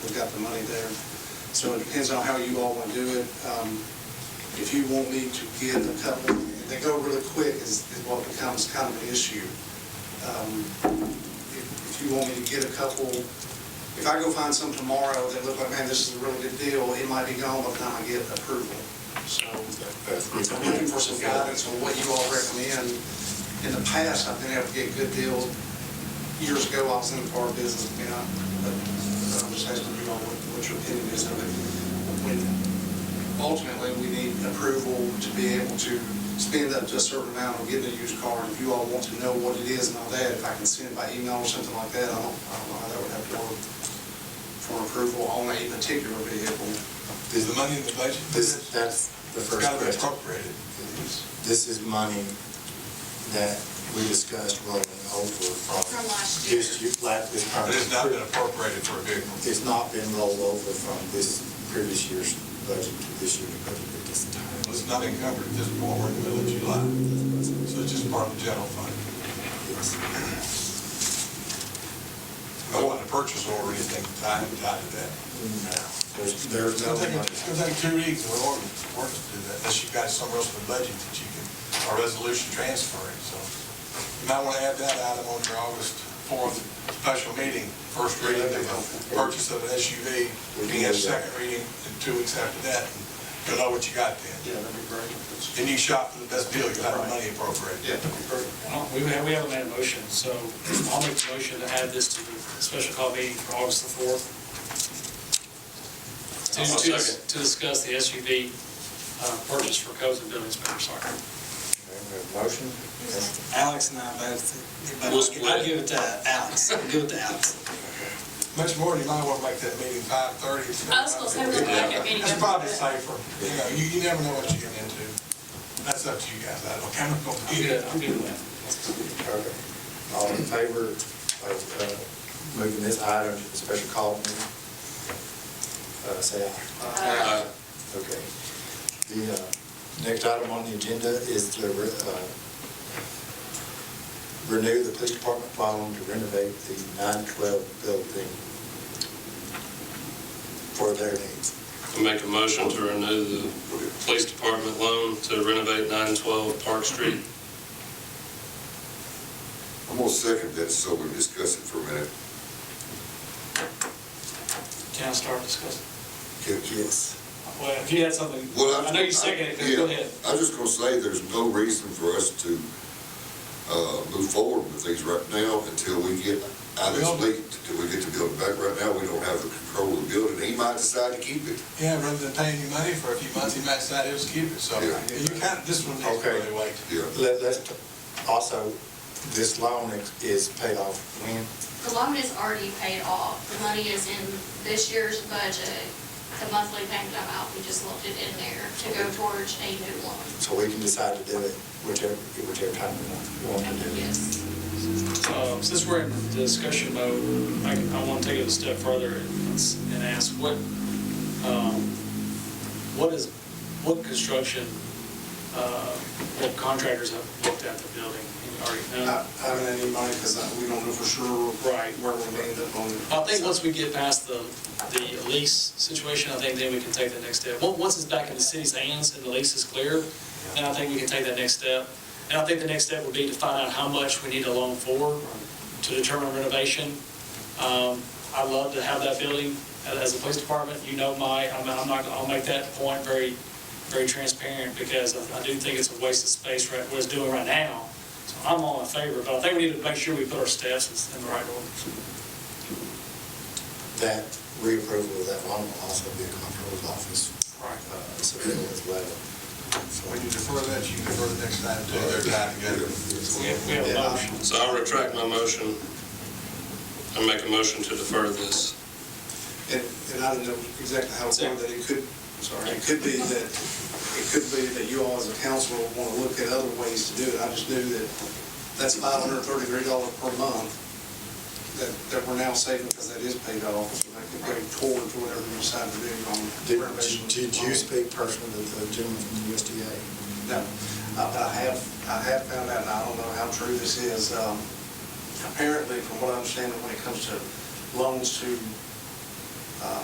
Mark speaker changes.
Speaker 1: We've got the money there. So it depends on how you all want to do it. Um, If you want me to get a couple, they go really quick is is what becomes kind of an issue. Um, If if you want me to get a couple, if I go find some tomorrow that look like, man, this is a really good deal, it might be gone by the time I get approval. So I'm looking for some guidance on what you all recommend. In the past, I've been able to get good deals years ago, I was in the car business, you know, but I'm just asking you all what, what your opinion is of it. When Ultimately, we need approval to be able to spend up to a certain amount on getting a used car. And If you all want to know what it is and all that, if I can send it by email or something like that, I don't, I don't know how that would have to work for approval on a particular vehicle.
Speaker 2: Is the money in the budget?
Speaker 3: This, that's the
Speaker 2: It's
Speaker 3: first
Speaker 2: got to be
Speaker 3: question.
Speaker 2: appropriated.
Speaker 3: This is money that we discussed rolling over from.
Speaker 4: From last year.
Speaker 3: This year, like this
Speaker 2: But it's not been
Speaker 3: current-
Speaker 2: appropriated for a vehicle.
Speaker 3: It's not been rolled over from this previous year's budget to this year's budget at this time.
Speaker 2: It's not encumbered at this point, we're in the middle of July. So it's just part of the general fund.
Speaker 3: Yes.
Speaker 2: I want a purchase order, anything tied tied to that.
Speaker 3: No, there's, there's
Speaker 2: It's
Speaker 3: no
Speaker 2: gonna
Speaker 3: money.
Speaker 2: take, it's gonna take two weeks or more to do that, unless you've got somewhere else in the budget that you can, a resolution transferring, so. You might want to add that item on your August fourth special meeting, first reading of the purchase of an SUV, being a second reading, and two weeks after that, and you'll know what you got then.
Speaker 1: Yeah, that'd be great.
Speaker 2: And you shop for the best deal, you'll have the money appropriated.
Speaker 1: Yeah, that'd be great.
Speaker 5: Well, We we haven't made a motion, so I'll make a motion to add this to the special call meeting for August the 4th. To-
Speaker 6: I'll
Speaker 5: To
Speaker 6: second.
Speaker 5: to discuss the SUV uh, purchase for codes and buildings, Mr. Sarkar.
Speaker 3: There's no Motion?
Speaker 7: Alex and I both, but
Speaker 6: We'll
Speaker 7: I'll- I'll
Speaker 6: split.
Speaker 7: give it to Alex, I'll give it to Alex.
Speaker 2: Much more, you might want to make that meeting five thirty.
Speaker 4: I was gonna say, we're gonna make a meeting.
Speaker 2: It's probably safer, you know, you, you never know what you're getting into. That's up to you guys, I don't, I'm not gonna
Speaker 5: I'm
Speaker 2: do
Speaker 5: good,
Speaker 2: that.
Speaker 5: I'm good with that.
Speaker 3: Okay. All in favor of uh, moving this item to the special call meeting? Uh, Say aye.
Speaker 6: Uh,
Speaker 3: Okay. The uh, next item on the agenda is to uh, renew the police department following to renovate the 912 building for their needs.
Speaker 6: I Make a motion to renew the police department loan to renovate 912 Park Street.
Speaker 8: I'm gonna second that, so we can discuss it for a minute.
Speaker 5: Can I start discussing?
Speaker 8: Can't you?
Speaker 5: Well, if you had something,
Speaker 8: Well,
Speaker 5: I know you seconded it, but go
Speaker 8: yeah,
Speaker 5: ahead.
Speaker 8: I was just gonna say, there's no reason for us to, uh, move forward with things right now until we get out of this
Speaker 2: Well-
Speaker 8: leak, until we get the building back. Right now, we don't have the control of the building. He might decide to keep it.
Speaker 2: Yeah, rather than paying you money for a few months, he might decide he'll just keep it, so
Speaker 8: Yeah.
Speaker 2: you kind of, this one needs to
Speaker 3: Okay.
Speaker 2: really wait.
Speaker 8: Yeah.
Speaker 3: Let- Let's, t- also, this loan is- is paid off when?
Speaker 4: The loan is already paid off. The money is in this year's budget. The monthly payment amount, we just left it in there to go towards a new loan.
Speaker 3: So we can decide to do it whichever, whichever time we want- we want to do it.
Speaker 4: Yes.
Speaker 5: Uh, Since we're in discussion mode, I- I want to take it a step further and s- and ask what, um, what is, what construction, uh, what contractors have looked at the building and already know?
Speaker 1: Not having any money, because we don't know for sure
Speaker 5: Right.
Speaker 1: where we're gonna end up on it.
Speaker 5: I think once we get past the, the lease situation, I think then we can take the next step. Once once it's back in the city's hands and the lease is clear, then I think we can take that next step. And I think the next step would be to find out how much we need a loan for to determine renovation. Um, I'd love to have that building as- as a police department. You know my, I'm I'm not, I'll make that point very, very transparent because I I do think it's a waste of space right, what it's doing right now. So I'm all in favor, but I think we need to make sure we put our steps in the right order.
Speaker 3: That reapproval of that loan will also be a comptroller's office.
Speaker 5: Right.
Speaker 3: uh, submittal as well.
Speaker 2: So When you defer that, you can defer the next time to their time together.
Speaker 5: We have, we have a
Speaker 3: Yeah.
Speaker 5: motion.
Speaker 6: So I'll retract my motion. I make a motion to defer this.
Speaker 1: And, and I don't know exactly how it's going, that it could, I'm sorry, it could be that, it could be that you all as a council want to look at other ways to do it. I just knew that that's five hundred and thirty-three dollars per month that, that we're now saving because that is paid off. So that could go toward to whatever you decide to do on renovation.
Speaker 3: Did, did you speak personally to the gentleman from the USDA?
Speaker 1: No, Uh, but I have, I have found out, and I don't know how true this is, um, apparently, from what I understand, when it comes to loans uh, to